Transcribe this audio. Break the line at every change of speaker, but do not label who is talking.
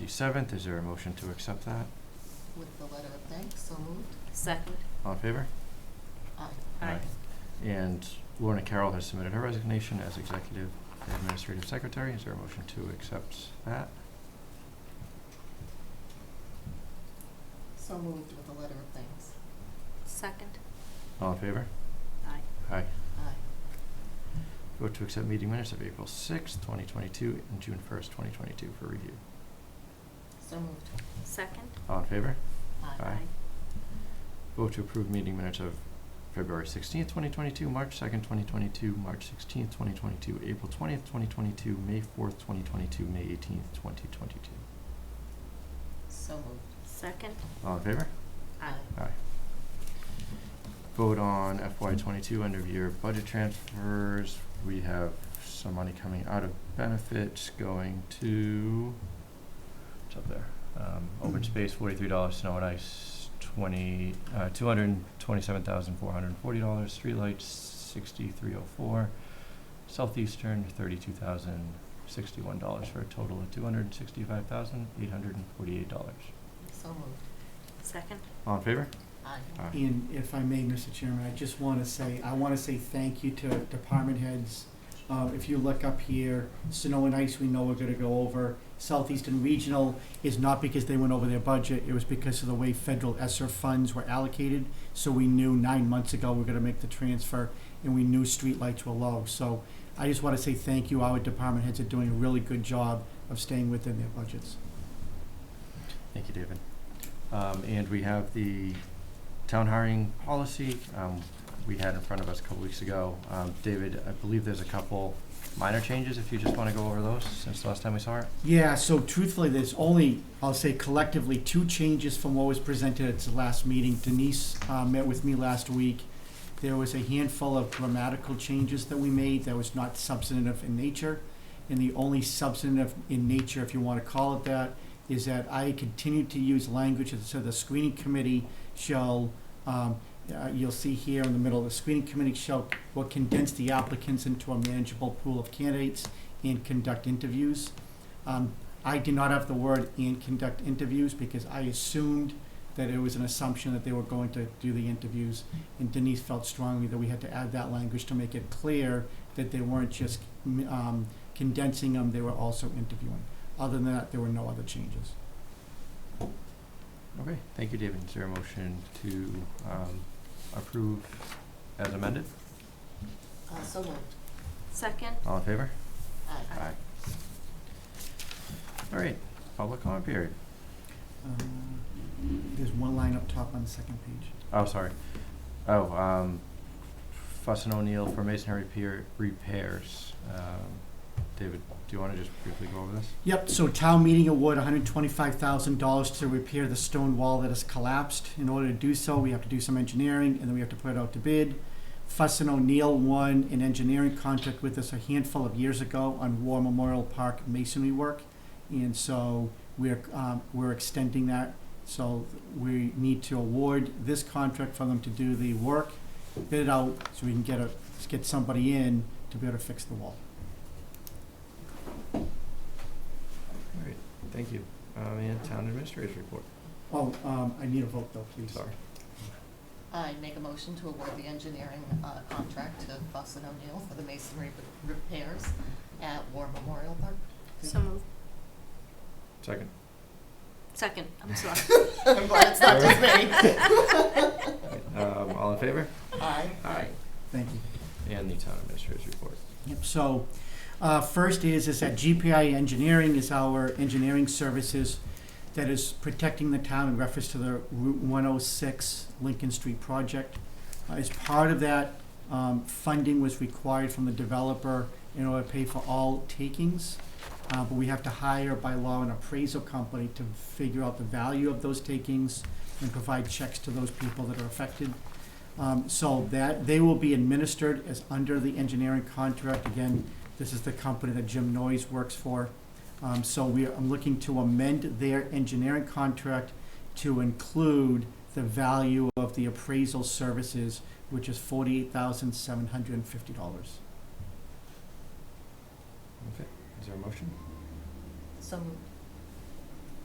27th. Is there a motion to accept that?
With the letter of thanks, so moved.
Second.
All in favor?
Aye.
Aye.
And Lorna Carroll has submitted her resignation as Executive Administrative Secretary. Is there a motion to accept that?
So moved with the letter of thanks.
Second.
All in favor?
Aye.
Aye.
Aye.
Vote to accept meeting minutes of April 6th, 2022, and June 1st, 2022 for review.
So moved.
Second.
All in favor?
Aye.
Aye. Vote to approve meeting minutes of February 16th, 2022, March 2nd, 2022, March 16th, 2022, April 20th, 2022, May 4th, 2022, May 18th, 2022.
So moved.
Second.
All in favor?
Aye.
Aye. Vote on FY twenty-two end of year budget transfers. We have some money coming out of benefits going to, what's up there? Um, open space, forty-three dollars, snow and ice, twenty, uh, two hundred and twenty-seven thousand, four hundred and forty dollars, streetlights, sixty-three oh four, southeastern, thirty-two thousand, sixty-one dollars, for a total of two hundred and sixty-five thousand, eight hundred and forty-eight dollars.
So moved.
Second.
All in favor?
Aye.
Aye.
And if I may, Mr. Chairman, I just want to say, I want to say thank you to department heads. Uh, If you look up here, snow and ice, we know we're going to go over. Southeastern Regional is not because they went over their budget, it was because of the way federal ESSER funds were allocated. So we knew nine months ago we we're going to make the transfer, and we knew streetlights were low. So I just want to say thank you. Our department heads are doing a really good job of staying within their budgets.
Thank you, David. Um, and we have the town hiring policy, um, we had in front of us a couple weeks ago. Um, David, I believe there's a couple minor changes, if you just wanna go over those, since the last time we saw it.
Yeah, so truthfully, there's only, I'll say collectively, two changes from what was presented at the last meeting. Denise uh, met with me last week. There was a handful of grammatical changes that we made that was not substantive in nature. And the only substantive in nature, if you want to call it that, is that I continue to use language, that said the screening committee shall, um, uh, you'll see here in the middle, the screening committee shall, will condense the applicants into a manageable pool of candidates and conduct interviews. Um, I did not have the word and conduct interviews because I assumed that it was an assumption that they were going to do the interviews. And Denise felt strongly that we had to add that language to make it clear that they weren't just um, condensing them, they were also interviewing. Other than that, there were no other changes.
Okay, thank you, David. Is there a motion to, um, approve as amended?
Uh, so moved.
Second.
All in favor?
Aye.
Aye. All right, public comment period.
Um, There's one line up top on the second page.
Oh, sorry. Oh, um, Fuss and O'Neill for masonry pier repairs. Um, David, do you wanna just briefly go over this?
Yep, so town meeting award hundred twenty-five thousand dollars to repair the stone wall that has collapsed. In order to do so, we have to do some engineering and then we have to put it out to bid. Fuss and O'Neill won an engineering contract with us a handful of years ago on War Memorial Park masonry work. And so we're, um, we're extending that. So we need to award this contract for them to do the work, bid it out so we can get a, get somebody in to be able to fix the wall.
All right, thank you. Um, and town administrator's report,
Oh, um, I need a vote though, please.
sorry.
I make a motion to award the engineering uh, contract to Fuss and O'Neill for the masonry re- repairs at War Memorial Park.
So moved.
Second.
Second. I'm sorry.
I'm glad it's not just me.
Um, all in favor?
Aye.
Aye.
Thank you.
And the town administrator's report.
Yep, so, uh, first is, is that GPI Engineering is our engineering services that is protecting the town in reference to the Route one oh six Lincoln Street project. Uh, As part of that, um, funding was required from the developer in order to pay for all takings. Uh, but we have to hire by law an appraisal company to figure out the value of those takings and provide checks to those people that are affected. Um, so that, they will be administered as under the engineering contract. Again, this is the company that Jim Noyes works for. Um, so we, I'm looking to amend their engineering contract to include the value of the appraisal services, which is forty-eight thousand seven hundred and fifty dollars.
Is there a motion?
So moved.